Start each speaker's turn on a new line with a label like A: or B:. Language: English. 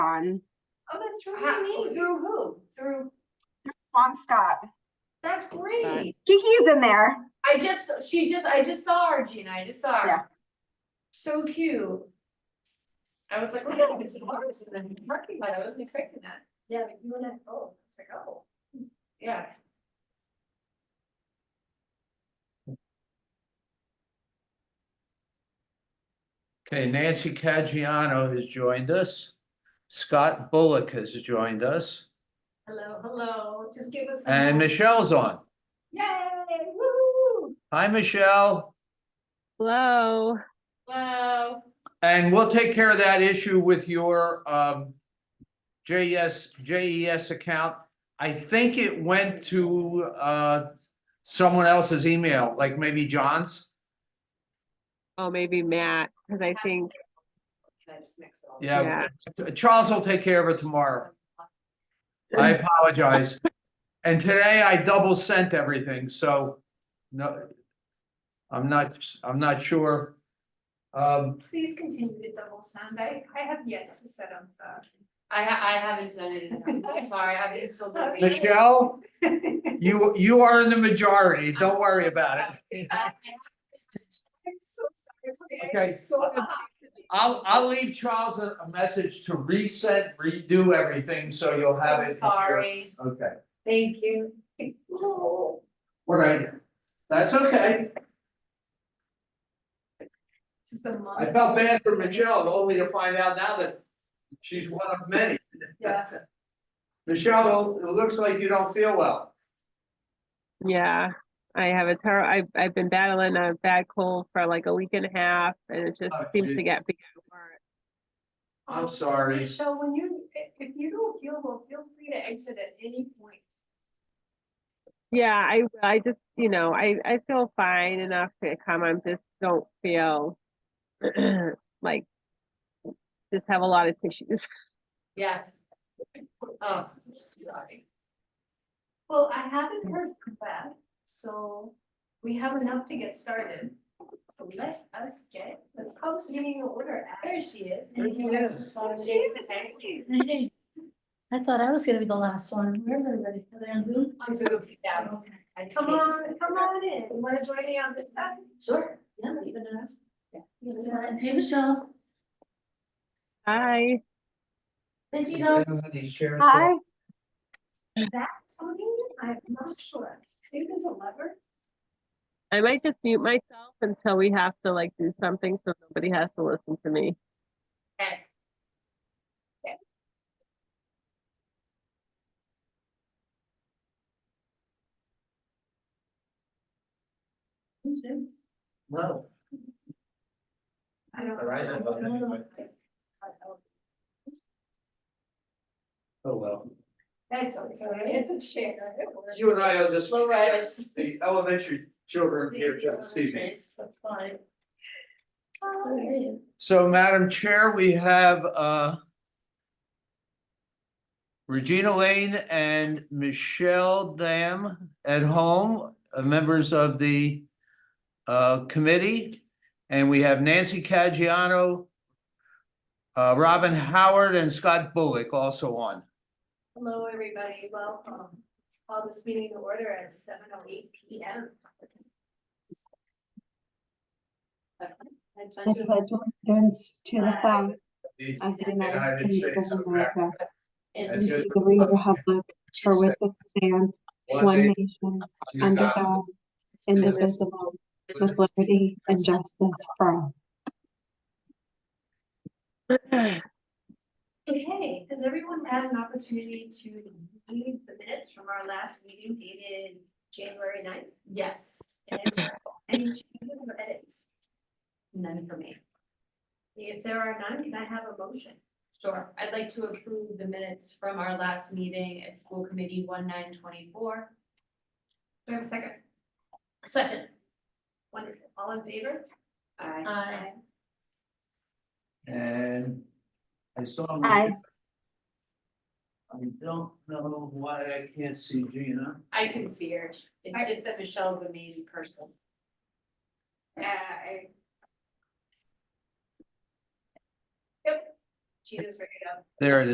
A: on
B: Oh, that's
C: How-
B: really neat.
C: Through who? Through,
A: Swamscott.
C: that's great.
A: Kiki's in there.
C: I just, she just, I just saw her, Gina, I just saw
A: Yeah.
C: her. So cute. I was like, wow, there's some flowers in the parking lot, I wasn't expecting that.
B: Yeah, but you wanna, oh,
C: It's like, oh, yeah.
D: Okay, Nancy Caggiano has joined us. Scott Bullock has joined us,
C: Hello, hello, just give us. some
D: and
C: more-
D: Michelle's on.
C: Yay, woo,
D: Hi, Michelle.
E: Hello.
C: wow,
D: And we'll take care of that issue with your um E JES, JES account. I think it went to uh someone else's email, like maybe John's.
E: Oh, maybe Matt, because I think,
C: can I just mix it all?
D: Yeah,
E: Yeah.
D: Charles will take care of it tomorrow. I apologize. And today I double sent everything, so no. I'm not, I'm not sure. Um,
B: please continue with the whole sound. I, I have yet to set up the.
C: I ha- I haven't done it, yet. I'm sorry, I've been so busy.
D: Michelle, you, you are in the majority. Don't worry about it.
C: Uh, I
B: I'm so sorry.
D: Okay. I'll, I'll leave Charles a, a message to reset, redo everything, so you'll have it. in your-
C: Sorry,
D: Okay,
C: thank you.
D: all right. That's okay.
B: This is the month.
D: I felt bad for Michelle, only to find out now that she's one of many.
B: Yeah.
D: Michelle, it looks like you don't feel well.
E: yeah, I have a terrible, I've, I've been battling a bad cold for like a week and a half and it just
D: Oh,
E: seems to
D: geez.
E: get bigger. and worse.
D: I'm sorry.
B: Michelle, when you, if- if you don't feel well, feel free to exit at any point.
E: Yeah, I, I just, you know, I, I feel fine enough to come. I'm just don't feel like just have a lot of tissues.
C: Yes. Oh, sorry.
B: Well, I haven't heard from Beth, so we have enough to get started. So let us get, let's call this meeting in order.
C: There she is.
B: There she is.
C: She is, exactly.
F: Hey, I thought I was gonna be the last one. Where's everybody? Are they on Zoom?
C: On Zoom, yeah.
F: Okay.
C: I just
B: Come
C: can't-
B: on, come on in. You Wanna join me on this side?
F: Sure. Yeah, you can do that.
B: You
F: It's
B: can-
F: fine. Hey, Michelle.
E: Hi,
F: Did you know?
D: These chairs.
A: Hi.
B: That, Tony, I'm not sure. Maybe there's a lever.
E: I might just mute myself until we have to like do something so nobody has to listen to me.
C: Okay.
D: No,
B: I don't.
D: All right, I love that. oh well.
B: That's okay, it's a chair. It works.
D: You and I are just.
F: Low riders.
D: The elementary children here this evening.
F: That's fine.
B: Oh, yeah.
F: Hey.
D: So Madam Chair, we have uh Regina Lane and Michelle Dam at home, uh, members of the uh committee. And we have Nancy Caggiano, uh Robin Howard and Scott Bullock also on.
B: Hello, everybody, welcome. Let's call this meeting to order at seven oh eight P M.
A: I pledge allegiance to the flag of the
D: United
A: United States
D: States
A: of
D: of
A: America
D: And
A: and to the republic for which it stands, one nation, under God, indivisible, with liberty and justice for all.
B: Okay, has everyone had an opportunity to read the minutes from our last meeting dated January 9th?
C: Yes,
B: And uh, any changes or edits?
C: none for me.
B: If there are none, can I have a motion?
C: Sure, I'd like to approve the minutes from our last meeting at school committee one nine twenty-four.
B: Do I have a second?
C: Second.
B: Wonderful, all in favor?
C: Aye.
B: Aye.
D: And I saw.
A: Aye.
D: I don't know why I can't see Gina.
C: I can see her. It- It's that Michelle's an amazing person.
B: Aye. Yep. Gina's ready to go.
D: There it is.